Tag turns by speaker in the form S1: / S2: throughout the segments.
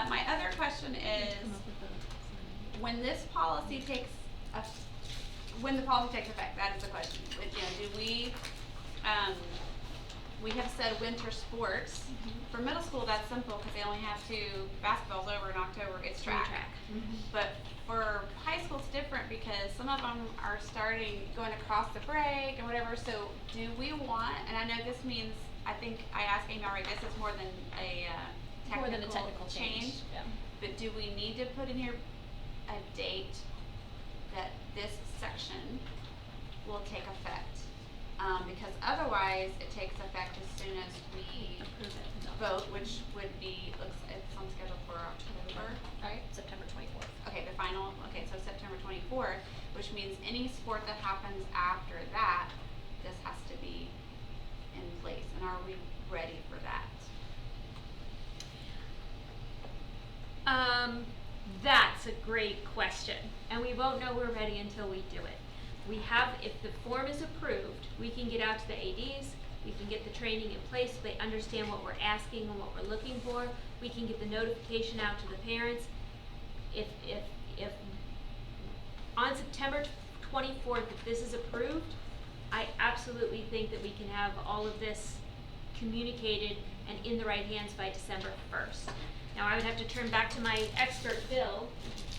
S1: Uh, question is, when this policy takes, eff- when the policy takes effect, that is the question. With, you know, do we, um, we have said winter sports.
S2: Mm-hmm.
S1: For middle school, that's simple because they only have two, basketball's over in October, it's track. But for high school, it's different because some of them are starting, going across the break and whatever. So do we want, and I know this means, I think I asked Amy already, this is more than a uh,
S2: More
S1: technical
S2: than a technical change, yeah.
S1: but do we need to put in here a date that this section will take effect? Um, because otherwise, it takes effect as soon as we vote, which would be, looks, it's on schedule for October, right?
S2: September twenty-fourth.
S1: Okay, the final, okay, so September twenty-fourth, which means any sport that happens after that, this has to be in place, and are we ready for that?
S3: Um, that's a great question, and we won't know we're ready until we do it. We have, if the form is approved, we can get out to the ADs, we can get the training in place, so they understand what we're asking and what we're looking for. We can get the notification out to the parents. If, if, if, on September twenty-fourth, if this is approved, I absolutely think that we can have all of this communicated and in the right hands by December first. Now, I would have to turn back to my expert Bill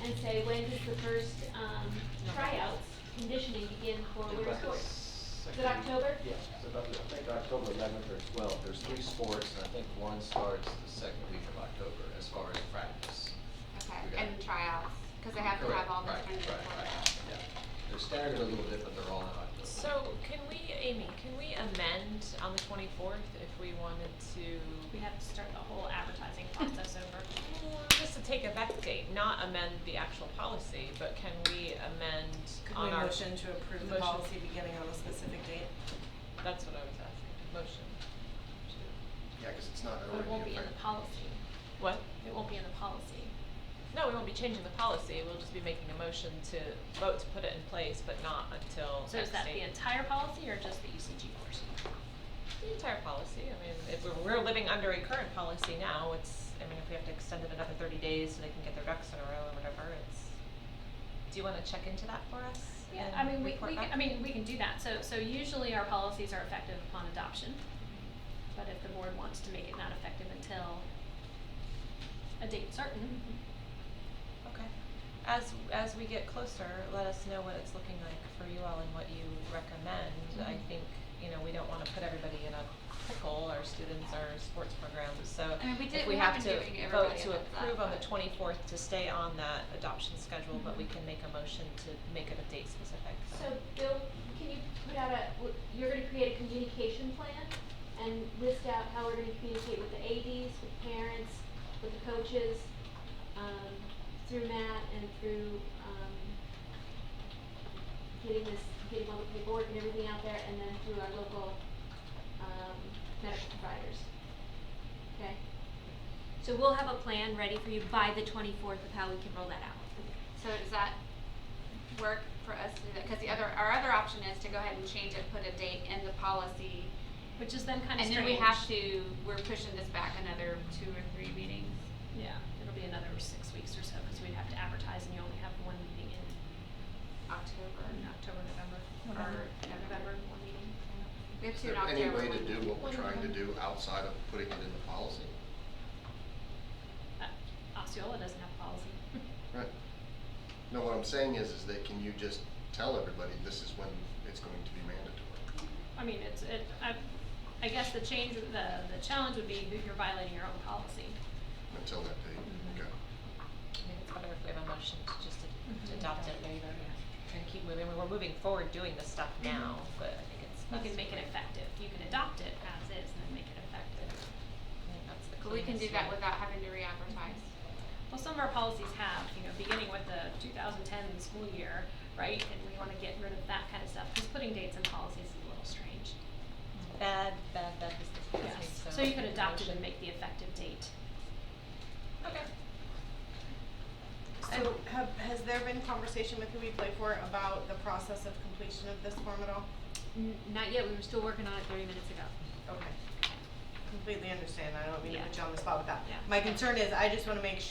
S3: and say, when does the first, um, tryouts, conditioning begin for winter sports? Is it October?
S4: Yeah, it's about, I think October eleventh or twelfth, there's three sports, and I think one starts the second week of October, as far as practice.
S1: Okay,
S4: We got
S1: and tryouts, because they have to have
S4: Correct,
S1: all this
S4: right,
S1: kind of.
S4: right, right, yeah. They're staggered a little bit, but they're all in October.
S5: So can we, Amy, can we amend on the twenty-fourth if we wanted
S2: We
S5: to,
S2: have to start the whole advertising process over.
S5: Well, Mm, just to take effect date, not amend the actual policy, but can we amend
S6: Could
S5: on
S6: we
S5: our?
S6: motion to approve
S5: motion-
S6: the policy beginning on a specific date?
S5: That's what I was asking, motion. to-
S7: Yeah, because it's not
S2: But
S7: already.
S2: it won't be in the
S7: effect-
S2: policy.
S5: What?
S2: It won't be in the policy.
S5: No, we won't be changing the policy, we'll just be making a motion to vote to put it in place, but not until next
S2: So is that
S5: date.
S2: the entire policy or just the ECG portion?
S5: The entire policy, I mean, if we're, we're living under a current policy now, it's, I mean, if we have to extend it another thirty days so they can get their ducks in a row or whatever, it's. Do you wanna check into that for us?
S2: Yeah,
S5: and
S2: I mean, we,
S5: report
S2: we,
S5: back?
S2: I mean, we can do that. So, so usually our policies are effective upon adoption. But if the board wants to make it not effective until a date certain,
S5: Okay, as, as we get closer, let us know what it's looking like for you all and what you recommend, I
S1: Mm-hmm.
S2: Mhm.
S5: think, you know, we don't wanna put everybody in a pickle, our students, our sports programs, so.
S1: I mean, we did-
S5: If
S1: we
S5: we
S1: have
S5: have
S1: been
S5: to
S1: giving
S5: vote
S1: everybody a
S5: to
S1: heads up,
S5: approve on the
S1: but- Mm-hmm.
S5: twenty-fourth to stay on that adoption schedule, but we can make a motion to make it a date specific,
S3: So Bill, can you put out a, w- you're gonna create a communication plan and list out how we're gonna communicate with the ADs, with parents, with the coaches, um, through Matt and through, um, getting this, getting all the paperwork and everything out there and then through our local, um, medical providers. Okay?
S2: So we'll have a plan ready for you by the twenty-fourth of how we can roll that out.
S1: So does that work for us to do that? Because the other, our other option is to go ahead and change it, put a date in the policy.
S2: Which is then kind of
S1: And
S2: strange.
S1: then we have to, we're pushing this back another two or three meetings.
S2: Yeah, it'll be another six weeks or so, because we'd have to advertise and you only have one meeting in,
S1: October.
S2: in October, November,
S1: November.
S2: or November, one meeting.
S1: We have
S7: Is
S1: two in
S7: there
S1: October.
S7: any way to
S1: one-
S7: do what we're trying to do outside of putting it in the policy?
S2: Uh, Osceola doesn't have a policy.
S7: Right. No, what I'm saying is, is that can you just tell everybody this is when it's going to be mandatory?
S2: I mean, it's, it, I, I guess the change, the, the challenge would be that you're violating your own policy.
S7: Until that date,
S5: Mhm.
S1: Mm-hmm.
S5: I
S7: okay.
S5: think it's better if we have a motion to just
S1: Mm-hmm.
S5: a- to
S2: Mhm.
S5: adopt it later and keep moving, we're moving forward doing this stuff
S1: Mm-hmm.
S5: now, but I think it's
S2: You
S5: best.
S2: can make it effective, you can adopt it as is and then make it effective.
S5: I think that's the
S1: But we can do
S5: cleanest
S1: that
S5: way.
S1: without having to re-advertise.
S2: Well, some of our policies have, you know, beginning with the 2010 school year, right? And we want to get rid of that kind of stuff, because putting dates in policies is a little strange.
S5: Bad, bad, bad business policy,
S2: Yes,
S5: so.
S2: so you could adopt it and
S5: motion.
S2: make the effective date.
S5: Okay.
S6: So have, has there been conversation with who we play for about the process of completion of this form at all?
S2: N- Not yet, we were still working on it thirty minutes ago.
S6: Okay. Completely understand, I don't mean to
S2: Yeah.
S6: put you on the spot with that.
S2: Yeah.
S6: My concern is, I just wanna make sure